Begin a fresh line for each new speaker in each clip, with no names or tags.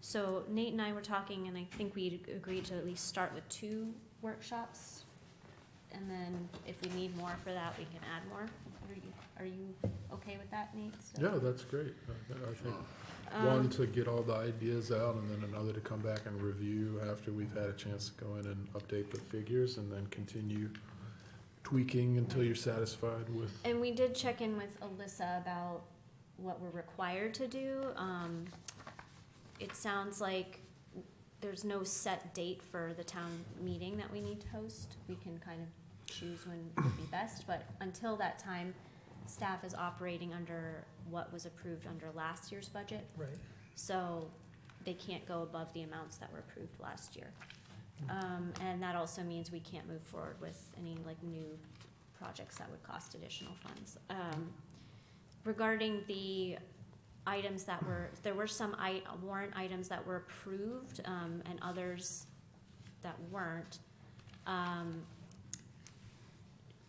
So Nate and I were talking, and I think we agreed to at least start with two workshops. And then if we need more for that, we can add more. Are you, are you okay with that, Nate? So-
Yeah, that's great. I- I think
Um,
one to get all the ideas out and then another to come back and review after we've had a chance to go in and update the figures and then continue tweaking until you're satisfied with.
And we did check in with Alyssa about what we're required to do. Um, it sounds like there's no set date for the town meeting that we need to host. We can kind of choose when would be best, but until that time, staff is operating under what was approved under last year's budget.
Right.
So they can't go above the amounts that were approved last year. Um, and that also means we can't move forward with any like new projects that would cost additional funds. Um, regarding the items that were, there were some i- warrant items that were approved, um, and others that weren't. Um,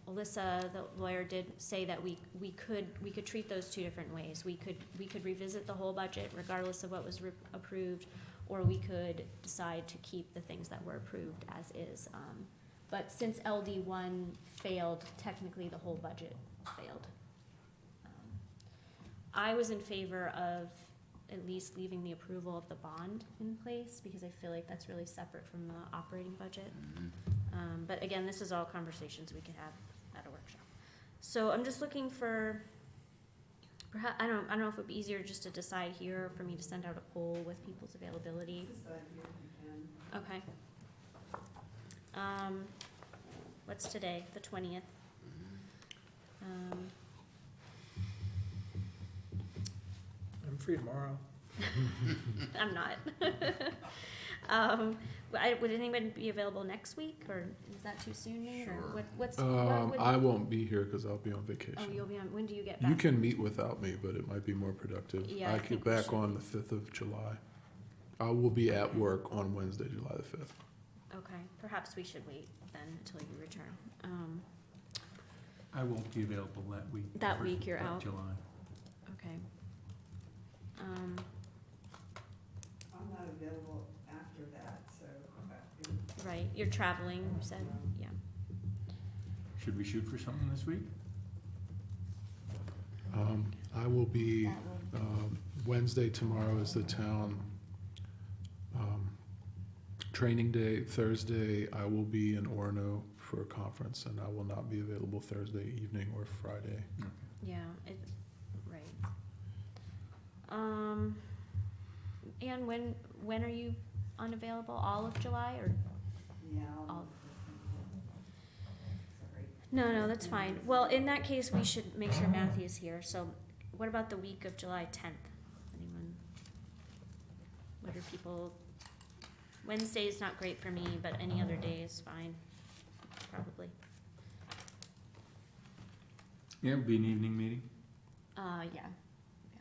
Alyssa, the lawyer, did say that we, we could, we could treat those two different ways. We could, we could revisit the whole budget regardless of what was re- approved, or we could decide to keep the things that were approved as is. Um, But since LD one failed, technically the whole budget failed. Um, I was in favor of at least leaving the approval of the bond in place, because I feel like that's really separate from the operating budget. Um, but again, this is all conversations we could have at a workshop. So I'm just looking for, perhaps, I don't, I don't know if it'd be easier just to decide here, or for me to send out a poll with people's availability. Okay. Um, what's today, the twentieth? Um,
I'm free tomorrow.
I'm not. Um, but I- would anyone be available next week, or is that too soon, Nate, or
Sure.
what, what's? what
Um,
would-
I won't be here because I'll be on
Oh, you'll
vacation.
be on, when do you get back?
You can meet without me, but it might be more productive.
Yeah, I
I get
think we
back
should.
on the fifth of July. I will be at work on Wednesday, July the fifth.
Okay, perhaps we should wait then until you return. Um,
I won't be available that week.
That
for-
week you're
for
out.
July.
okay. Um,
I'm not available after that, so.
right, you're traveling, you said, yeah.
Should we shoot for something this week?
Um, I will be,
That will-
um, Wednesday tomorrow is the town, um, training day. Thursday, I will be in Orono for a conference and I will not be available Thursday evening or Friday.
Yeah, it, right. Um, and when, when are you unavailable? All of July or?
Yeah.
I'll- No, no, that's fine. Well, in that case, we should make sure Matthew is here, so what about the week of July tenth? Anyone? What are people, Wednesday is not great for me, but any other day is fine, probably.
Yeah, it'll be an evening meeting.
Uh, yeah, yeah.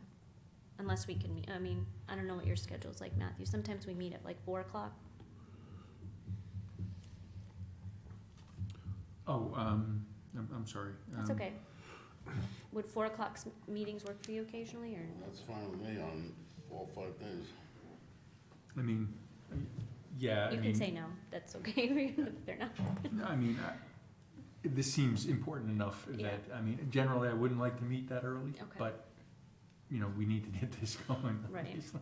Unless we can meet, I mean, I don't know what your schedule's like, Matthew. Sometimes we meet at like four o'clock.
Oh, um, I'm, I'm sorry.
That's
Um,
okay. Would four o'clock's m- meetings work for you occasionally, or?
That's fine with me on all five days.
I mean, yeah, I
You
mean.
can say no, that's okay, if they're not.
No, I mean, I- this seems important enough
Yeah.
that, I mean, generally, I wouldn't like to meet that early,
Okay.
but, you know, we need to get this going.
Right.
obviously.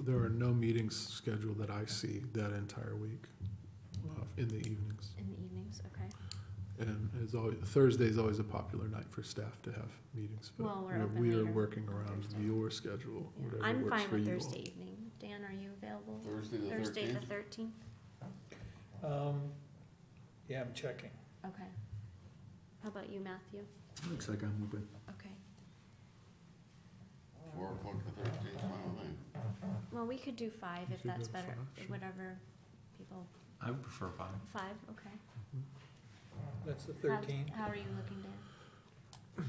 There are no meetings scheduled that I see that entire week, uh, in the evenings.
In the evenings, okay.
And as always, Thursday is always a popular night for staff to have meetings, but
Well, we're
we're-
open
we are
later
working
on
around
Thursday.
your schedule,
Yeah,
whatever
I'm
works
fine
for
with
you all.
Thursday evening. Dan, are you available?
Thursday the
Thursday the
thirteenth,
thirteenth?
Um, yeah, I'm checking.
Okay. How about you, Matthew?
Looks like I'm open.
Okay.
four o'clock the thirteenth, fine with me.
Well, we could do five
You
if
could
that's
go
better,
five, sure.
whatever people,
I would prefer five.
five, okay.
That's the
How's-
thirteenth.
How are you looking, Dan?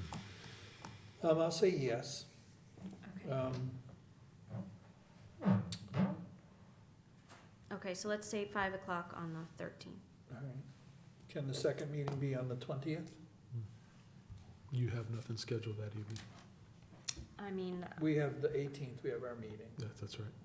Um, I'll say yes.
Okay.
Um,
Okay, so let's say five o'clock on the thirteenth.
all right. Can the second meeting be on the twentieth?
You have nothing scheduled that evening,
I mean, uh,
We have the eighteenth, we have our meeting.
yeah, that's right.